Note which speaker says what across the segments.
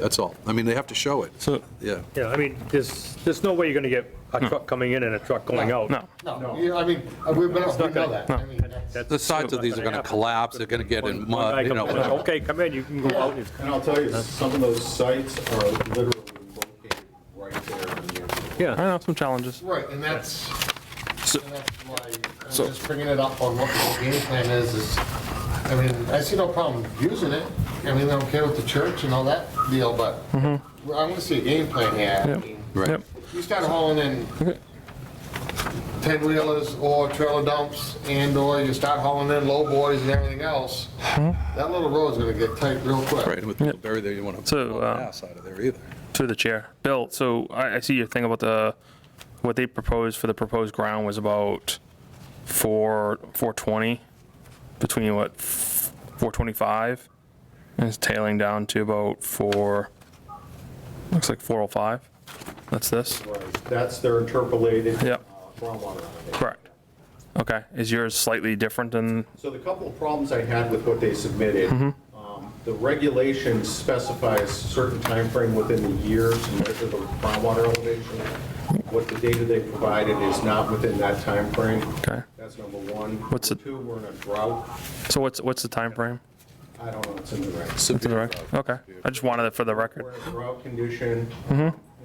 Speaker 1: That's all. I mean, they have to show it.
Speaker 2: So,
Speaker 1: Yeah.
Speaker 3: Yeah, I mean, there's, there's no way you're going to get a truck coming in and a truck going out.
Speaker 2: no,
Speaker 4: No, yeah, I mean, uh, we we know we know that. I mean, that's-
Speaker 3: That's-
Speaker 1: The sides of these are going to collapse, they're going to get in
Speaker 3: One guy
Speaker 1: mud, you
Speaker 3: comes in,
Speaker 1: know.
Speaker 3: Okay, come in, you can go out. It's-
Speaker 5: And I'll tell you, some of those sites are literally located right there in the airport.
Speaker 2: I
Speaker 3: Yeah,
Speaker 2: know, some challenges.
Speaker 4: Right, and that's,
Speaker 1: So-
Speaker 4: and that's why, I'm
Speaker 1: so-
Speaker 4: just bringing it up on what the game plan is, is, I mean, I see no problem using it. I mean, I'm okay with the church and all that deal, but I want to see a game plan here. I
Speaker 2: Yep.
Speaker 4: mean,
Speaker 1: Right.
Speaker 2: Yep.
Speaker 4: You start hauling in 10-wheelers or trailer dumps and/or you start hauling in low boys and everything else, that little road's gonna get tight real quick.
Speaker 1: Right, and with people buried there, you want to
Speaker 2: So,
Speaker 1: pull
Speaker 2: um,
Speaker 1: ass out of there either.
Speaker 2: Through the chair. Bill, so I, I see your thing about the, what they proposed for the proposed ground was about four, 420, between what, 425? And it's tailing down to about four, looks like 405. That's this?
Speaker 5: That's their interpolated.
Speaker 2: Yep.
Speaker 5: uh, Groundwater. allocation.
Speaker 2: Correct. Okay, is yours slightly different than,
Speaker 5: So the couple of problems I had with what they submitted,
Speaker 2: Mm-hmm.
Speaker 5: um, the regulation specifies certain time frame within the year to measure the groundwater elevation. What the data they provided is not within that time frame.
Speaker 2: okay,
Speaker 5: That's number one.
Speaker 2: What's
Speaker 5: Number
Speaker 2: the-
Speaker 5: Two, we're in a drought.
Speaker 2: so what's, what's the time frame?
Speaker 5: I don't know, it's in the regs.
Speaker 2: To the record? Okay, I just wanted it for the record.
Speaker 5: We're in a drought condition.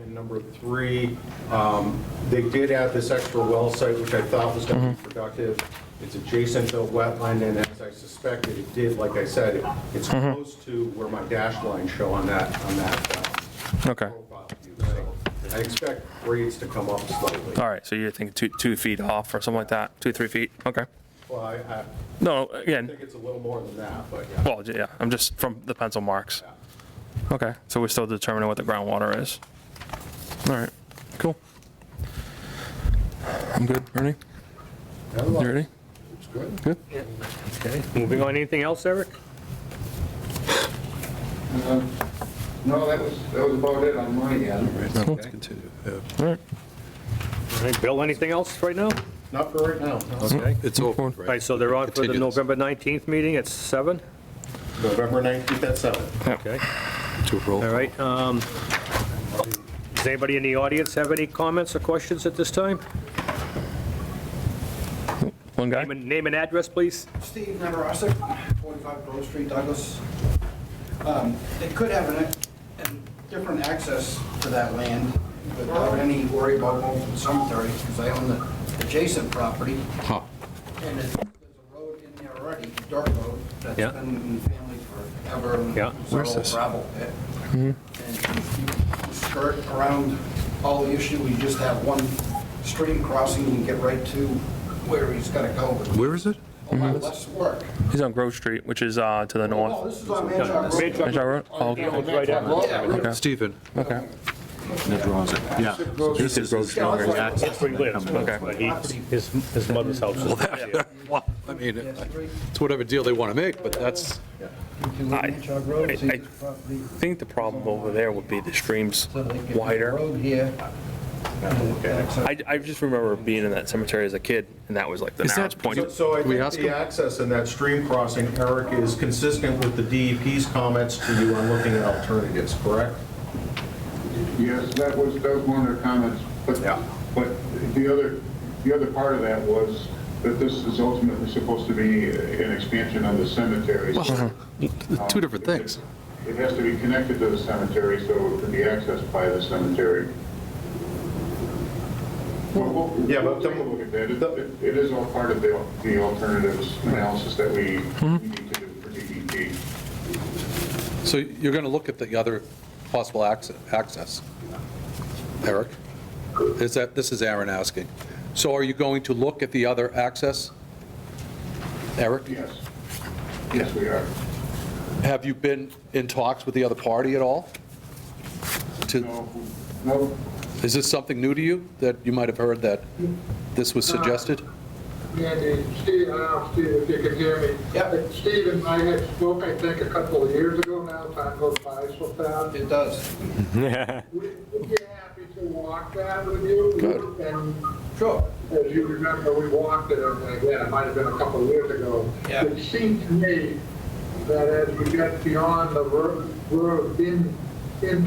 Speaker 5: And number three, um, they did add this extra well site, which I thought was going to be productive. It's adjacent to a wetland, and as I suspected, it did, like I said, it- it's close to where my dash lines show on that, on that um,
Speaker 2: Okay.
Speaker 5: profile view. So I expect grades to come up slightly.
Speaker 2: All right, so you're thinking two, two feet off or something like that, two, three feet, okay.
Speaker 5: Well, I I
Speaker 2: No,
Speaker 5: think
Speaker 2: again,
Speaker 5: it's a little more than that, but yeah.
Speaker 2: well, yeah, I'm just from the pencil marks. Okay, so we're still determining what the groundwater is. All right, cool. I'm good, Ernie, you
Speaker 4: Otherwise,
Speaker 2: ready?
Speaker 4: It's good.
Speaker 3: okay. Moving on, anything else, Eric?
Speaker 6: No, that was, that was about it on my end.
Speaker 1: Right, now let's continue. Yeah.
Speaker 2: All right,
Speaker 3: All right, Bill, anything else right now?
Speaker 5: Not for right now.
Speaker 3: Okay.
Speaker 1: It's over,
Speaker 3: All right,
Speaker 1: right?
Speaker 3: so they're on for the
Speaker 1: Continue this.
Speaker 3: November 19th meeting at 7?
Speaker 5: November 19th at 7.
Speaker 3: Okay,
Speaker 1: To roll.
Speaker 3: all right. um, Does anybody in the audience have any comments or questions at this time?
Speaker 2: one guy?
Speaker 3: Name and- Name and address, please.
Speaker 6: Steve Nemarosik, 45 Grove Street, Douglas. Um, It could have an- a different access to that land without any worry about moving cemetery, because I own the adjacent property,
Speaker 1: Huh.
Speaker 6: and it- there's a road in there already, dirt road, that's
Speaker 3: Yeah.
Speaker 6: been in the family forever. and
Speaker 3: Yeah.
Speaker 6: it's an
Speaker 1: Where's
Speaker 6: old
Speaker 1: this?
Speaker 6: gravel pit. And you skirt around all the issue, we just have one stream crossing, and get right to where he's got to go with
Speaker 1: Where is it?
Speaker 6: a lot less work.
Speaker 2: He's on Grove Street, which is uh, to the
Speaker 6: Oh,
Speaker 2: north.
Speaker 6: this is on Manchog Road.
Speaker 3: Manchog-
Speaker 2: Is that right? Oh,
Speaker 3: Right after.
Speaker 2: Okay.
Speaker 1: Stephen,
Speaker 2: Okay,
Speaker 7: Yeah, this is Grove Street, where the access.
Speaker 3: Where he lives.
Speaker 2: Okay.
Speaker 3: But he- His his mother's house is there.
Speaker 1: I mean, it's whatever deal they want to make, but that's,
Speaker 2: I-
Speaker 6: Manchog Road is
Speaker 2: I- I-
Speaker 6: his property,
Speaker 2: I think the problem over there would be the stream's
Speaker 6: so they could-
Speaker 2: wider.
Speaker 6: Road here.
Speaker 2: I, I just remember being in that cemetery as a kid, and that was like the
Speaker 1: Is that-
Speaker 2: narrowest point.
Speaker 5: So- So I
Speaker 1: we
Speaker 5: think
Speaker 1: ask
Speaker 5: the
Speaker 1: him?
Speaker 5: access in that stream crossing, Eric, is consistent with the DEP's comments to you on looking at alternatives, correct?
Speaker 7: Yes, that was, that was one of their comments, but,
Speaker 5: Yeah.
Speaker 7: but the other, the other part of that was that this is ultimately supposed to be an expansion of the cemetery. so,
Speaker 1: well,
Speaker 7: um,
Speaker 1: two different things.
Speaker 7: It has to be connected to the cemetery, so it can be accessed by the cemetery. Well, we'll-
Speaker 5: Yeah, but
Speaker 7: We'll
Speaker 5: the-
Speaker 7: take a look at that. It-
Speaker 5: the-
Speaker 7: It it is all part of the, the alternatives analysis that we
Speaker 1: Mm-hmm.
Speaker 7: need to do for E DEP.
Speaker 1: So you're going to look at the other possible acce- access, Eric? Is that, this is Aaron asking. So are you going to look at the other access? Eric,
Speaker 7: Yes. Yes, we are.
Speaker 1: have you been in talks with the other party at all? To,
Speaker 7: No, no,
Speaker 1: is this something new to you, that you might have heard that this was suggested?
Speaker 8: Andy, Steve, I don't know, Steve, if you can hear me.
Speaker 6: Yep.
Speaker 8: Steve and I had spoke, I think, a couple of years ago now, time goes by so fast.
Speaker 6: It does.
Speaker 8: We- We'd be happy to walk that with you.
Speaker 1: Good.
Speaker 8: And
Speaker 6: Sure.
Speaker 8: as you remember, we walked it, and again, it might have been a couple of years ago.
Speaker 6: Yeah.
Speaker 8: It seemed to me that as we got beyond the road, road in
Speaker 7: in